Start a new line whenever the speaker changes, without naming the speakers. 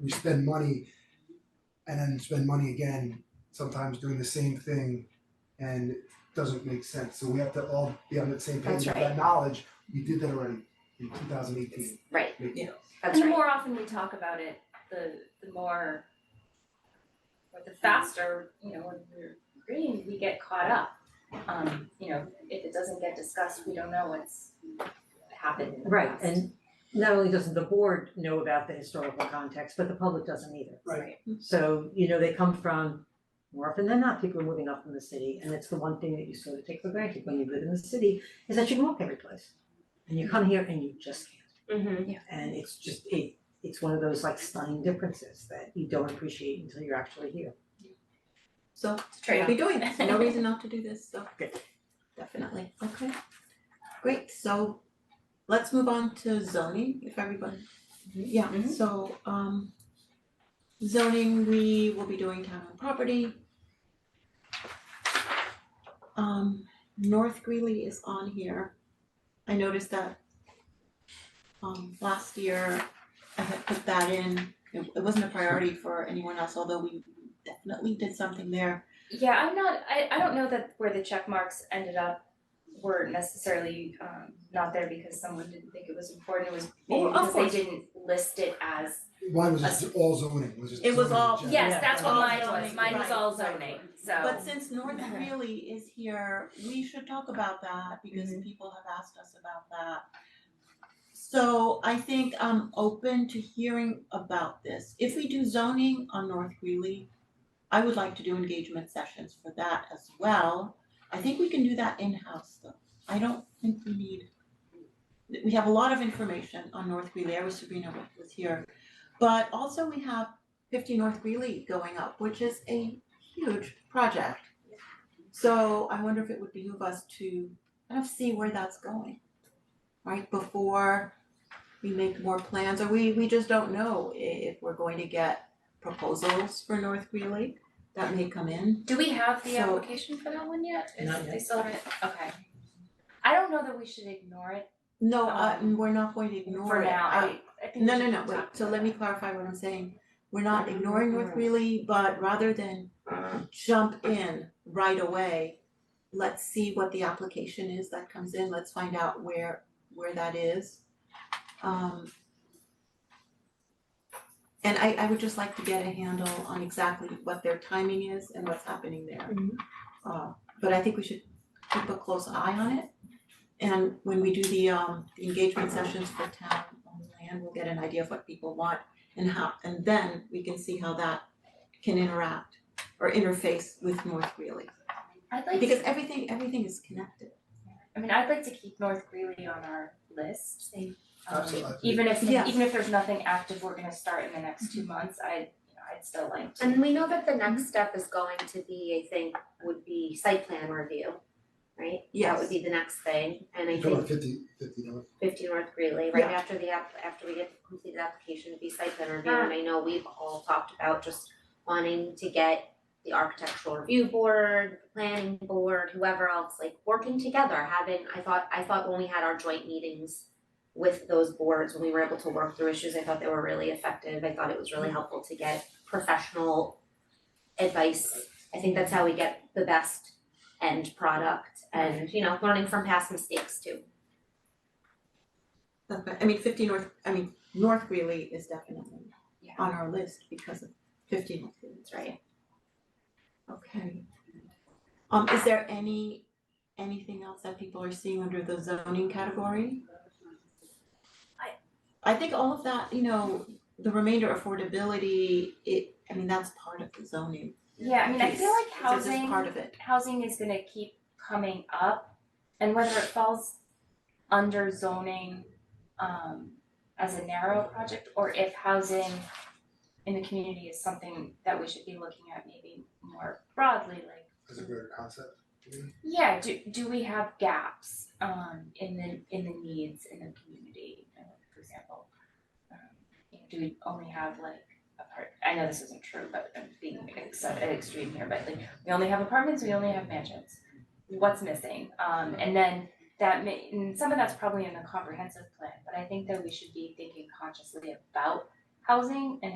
we spend money and then spend money again, sometimes doing the same thing and it doesn't make sense, so we have to all be on the same page
That's
with that
right.
knowledge, we did that already in two thousand eighteen.
Right, that's
And the
right,
more often we talk about it, the the more or the faster, you know, when we're agreeing, we get caught up. Um, you know, if it doesn't get discussed, we don't know what's happened in the
Right,
past.
and not only doesn't the board know about the historical context, but the public doesn't either.
Right.
So, you know, they come from, more often than not, people are moving up from the city, and it's the one thing that you sort of take for granted when you live in the city, is that you can walk every place. And you come here and you just can't,
mm-hmm,
and it's just, it, it's one of those like stunning differences that you don't appreciate until you're actually here.
So
it's a
we'll
trade-off.
be doing this, no reason not to do this, so.
Good.
Definitely, okay. Great, so let's move on to zoning, if everyone, yeah,
Mhm.
so um zoning, we will be doing town and property. Um North Greeley is on here. I noticed that um last year I had put that in, it it wasn't a priority for anyone else, although we definitely did something there.
Yeah, I'm not, I, I don't know that where the check marks ended up were necessarily um not there because someone didn't think it was important, it was maybe
Oh, of
because they
course.
didn't list it as,
Mine was just all zoning, was just
It was
zoning in
all-
general.
yes, that's what
All
mine was,
zoning,
mine was
right,
all
right.
zoning, so.
But since North really is here, we should talk about that because people have asked us about that. So I think I'm open to hearing about this. If we do zoning on North Greeley, I would like to do engagement sessions for that as well. I think we can do that in-house though. I don't think we need we have a lot of information on North Greeley. I wish Sabrina wa- was here. But also we have fifty North Greeley going up, which is a huge project. So I wonder if it would behoove us to kind of see where that's going, right, before we make more plans, or we we just don't know i- if we're going to get proposals for North Greeley that may come in.
Do we have the
So-
application for that one yet? Is-
Not yet.
They still haven't, okay. I don't know that we should ignore it
No, uh, we're not going to ignore
for
it.
now,
I-
I, I think we
No, no,
should
no, wait,
talk
so
about
let me
it.
clarify what I'm saying. We're not ignoring North Greeley, but rather than jump in right away, let's see what the application is that comes in, let's find out where where that is. Um and I I would just like to get a handle on exactly what their timing is and what's happening there.
Mhm.
Uh but I think we should keep a close eye on it. And when we do the um the engagement sessions for town on land, we'll get an idea of what people want and how, and then we can see how that can interact or interface with North Greeley.
I'd like
Because
to,
everything, everything is connected.
I mean, I'd like to keep North Greeley on our list. Um,
Absolutely.
Even if,
Yeah.
even if there's nothing active we're gonna start in the next
Mm-hmm.
two months, I, you know, I'd still like to.
And we know that the next step is going to be, I think, would be site plan review, right? That would
Yes,
be the next thing, and I
You're talking
think
about fifty, fifty, no?
fifty North Greeley, right
Yeah.
after the app, after we get completed application, be site plan review, and I know we've all talked about just wanting to get the architectural review board, planning board, whoever else, like working together, having, I thought, I thought when we had our joint meetings with those boards, when we were able to work through issues, I thought they were really effective, I thought it was really helpful to get professional advice. I think that's how we get the best end product and, you know, learning from past mistakes too.
that's right. I mean fifty North, I mean, North Greeley is definitely
Yeah.
on our list because of fifty North Greeley,
That's right.
Okay. Um, is there any, anything else that people are seeing under the zoning category? I. I think all of that, you know, the remainder affordability, it, I mean, that's part of the zoning
Yeah, I mean, I feel
piece.
like
It's just
housing,
part of it.
housing is gonna keep coming up and whether it falls under zoning um as a narrow project or if housing in the community is something that we should be looking at maybe more broadly, like,
As a greater concept, you mean?
yeah, do do we have gaps um in the in the needs in the community? Uh, For example, um, you know, do we only have like apart, I know this isn't true, but I'm being ex- extreme here, but like we only have apartments, we only have mansions. What's missing? Um, and then that may, and some of that's probably in the comprehensive plan, but I think that we should be thinking consciously about housing and